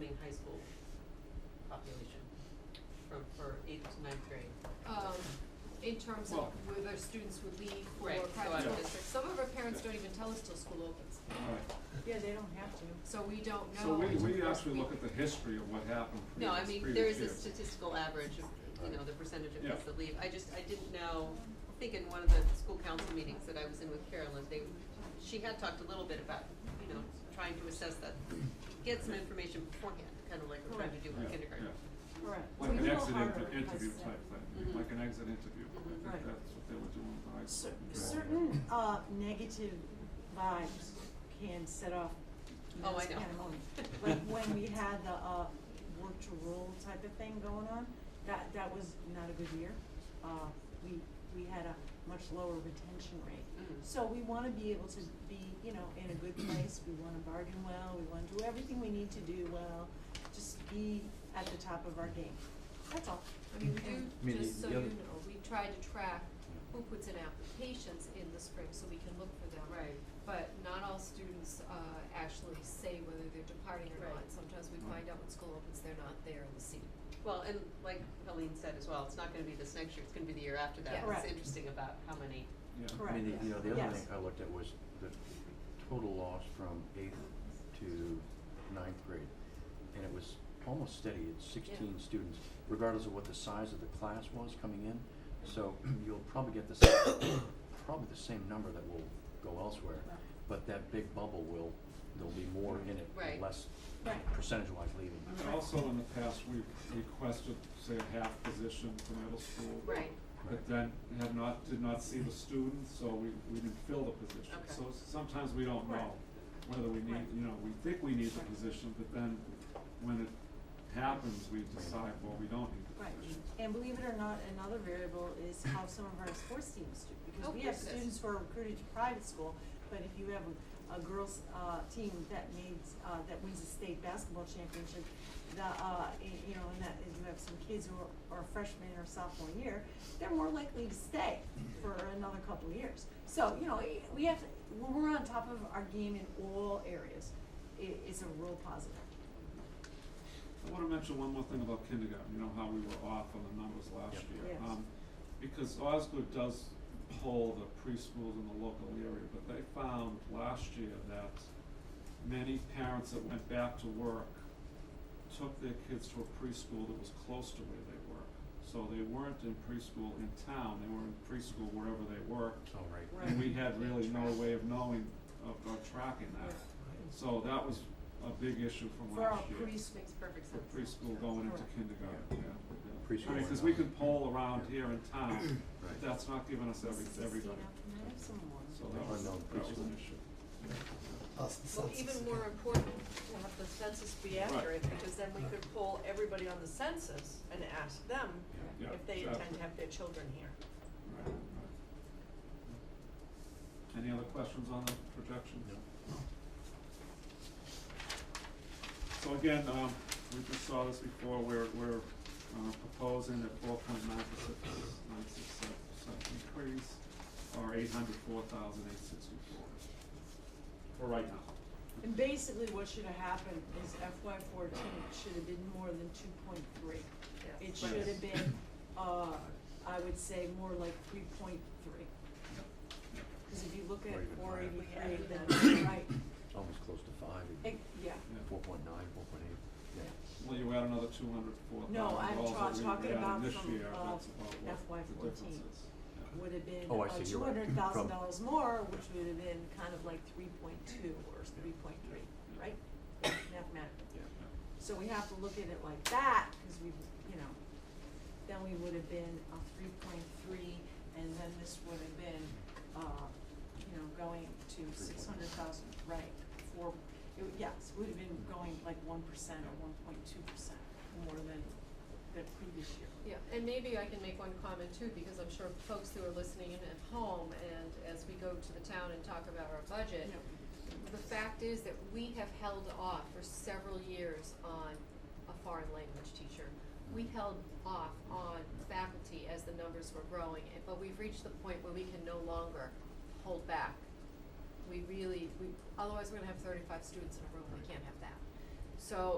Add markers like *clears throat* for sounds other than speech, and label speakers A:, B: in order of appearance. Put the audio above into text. A: in high school population from, for eighth to ninth grade.
B: um, in terms of
C: Well-
B: whether students would leave for
A: Right, so
B: private school
C: I-
B: districts. Some of our parents don't even tell us till school opens,
C: All right.
D: Yeah, they don't have to.
B: so we don't know.
C: So we,
B: until
C: we
B: the first
C: actually
B: week.
C: look at the history of what happened
A: No, I
C: previous,
A: mean, there
C: previous
A: is a
C: years.
A: statistical average of, you know, the percentage of
C: Yeah.
A: kids that leave. I just, I didn't know, I think in one of the school council meetings that I was in with Carolyn, they, she had talked a little bit about, you know, trying to assess that, get some information beforehand, kind of like we're trying to do
C: Yeah,
A: with kindergarten.
C: yeah.
D: Correct.
C: Like
D: It's
C: an
D: a little
C: exit
D: harder
C: inter-
D: in high
C: interview
D: school.
C: type thing,
A: Mhm.
C: like an exit interview, I think
A: Mhm.
C: that's
D: Right.
C: what they were doing in high school.
D: Cer-
C: Yeah.
D: Certain, uh, negative vibes can set off
A: Oh, I
D: mass
A: know. *laughs*
D: pandemonium. Like when we had the, uh, work to rule type of thing going on, that, that was not a good year. Uh, we, we had a much lower retention rate.
A: Mhm.
D: So we wanna be able to be, you know, in a good place, we wanna bargain well, we wanna do everything we need to do well, just be at the top of our game, that's all.
B: I mean,
E: I
B: we
E: mean,
B: do, just
E: the-
B: so
E: the
B: you know,
E: other-
B: we try to track who puts in applications in the spring so we can look for them.
A: Right.
B: But not all students, uh, actually say whether they're departing or not.
A: Right.
B: Sometimes we find out when school opens, they're not there in the seat.
A: Well, and like Helene said as well, it's not gonna be this next year, it's gonna be the year after that.
B: Yeah.
D: Correct.
A: It's interesting about how many,
C: Yeah.
E: I mean,
D: Correct.
E: the- you know, the other
D: Yes.
E: thing I looked at was the total loss from eighth to ninth grade. And it was almost steady at sixteen students, regardless of what the size of the class was coming in. So *clears throat* you'll probably get the same, probably the same number that will go elsewhere.
D: Right.
E: But that big bubble will, there'll be more in it,
A: Right.
E: less
D: Right.
E: percentage-wise leaving.
C: And also in the past, we requested, say, a half position for middle school.
A: right,
D: Mm-hmm.
C: But then had not, did not see the students, so we, we didn't fill the position.
A: Okay.
C: So sometimes we don't
D: Right.
C: know whether we need,
D: Right.
C: you know, we think we need the
D: Right.
C: position, but then when it happens, we decide, well, we don't need the
D: Right,
C: position.
D: and believe it or not, another variable is how some of our sports teams do,
A: Oh,
D: because we have
A: goodness.
D: students who are recruited to private school, but if you have a, a girls', uh, team that needs, uh, that wins a state basketball championship, the, uh, y- you know, and that, and you have some kids who are, are freshmen or sophomore year, they're more likely to stay for another couple of years. So, you know, i- we have, to- when we're on top of our game in all areas, i- it's a real positive.
C: I wanna mention one more thing about kindergarten, you know, how we were off on the numbers last
E: Yep.
C: year.
D: Yes.
C: Um, Because Osgood does poll the preschools in the local area, but they found last year that many parents that went back to work took their kids to a preschool that was close to where they work. So they weren't in preschool in town, they were in preschool wherever they worked.
E: So, right.
C: And we had really no way of knowing, of, of tracking that.
D: Right.
C: So that was a big issue from
D: For our
C: last year
D: preschool
A: makes perfect
C: for
A: sense.
C: preschool going into
D: Correct.
C: kindergarten, yeah, yeah.
E: Preschool
C: I mean,
E: and
C: cause we
E: on.
C: can poll around here in town,
E: Right.
C: but that's not giving us every,
D: Christina,
C: everybody,
D: can I have some more?
C: so that was,
E: Unknown
C: that was an
E: preschool.
C: issue.
F: Plus the
G: Well,
F: census.
G: even more important, we'll have the census be accurate, because then we could poll everybody on the census and ask them
C: Yeah,
G: if they intend
C: exactly.
G: to have their children here.
C: Right, right. Any other questions on the projections?
E: No.
C: So again, um, we just saw this before, we're, we're, uh, proposing a four point nine percent, nine six seven percent increase, or eight hundred four thousand eight sixty-four. For right now.
D: And basically what should have happened is FY fourteen should have been more than two point three.
G: Yes.
D: It should have been, uh, I would say more like three point three. Cause if you look
E: Or
D: at
E: even
D: four
E: higher.
D: eighty-three, then, right,
E: Almost close to five,
D: It- yeah.
C: Yeah.
E: four point nine, four point eight, yeah.
C: Well, you add another two hundred four thousand
D: No, I'm ta-
C: dollars that
D: talking
C: we
D: about
C: added this
D: from,
C: year,
D: uh,
C: that's about
D: FY
C: what the difference is.
D: 14.
C: Yeah.
D: Would have been
E: Oh, I
D: uh,
E: see,
D: two
E: you're right.
D: hundred thousand dollars
E: From-
D: more, which would have been kind of like three point two or three point three,
C: Yeah.
D: right? Mathematically.
E: Yeah.
D: So we have to look at it like that, cause we, you know, then we would have been a three point three, and then this would have been, uh, you know, going to six hundred thousand, right, four, it, would- yes, would have been going like one percent or one point two percent more than the previous year.
B: Yeah, and maybe I can make one comment too, because I'm sure folks who are listening in at home and as we go to the town and talk about our budget,
D: Yeah.
B: the fact is that we have held off for several years on a foreign language teacher. We held off on faculty as the numbers were growing, and- but we've reached the point where we can no longer hold back. We really, we, otherwise we're gonna have thirty-five students in a room, we can't have that. So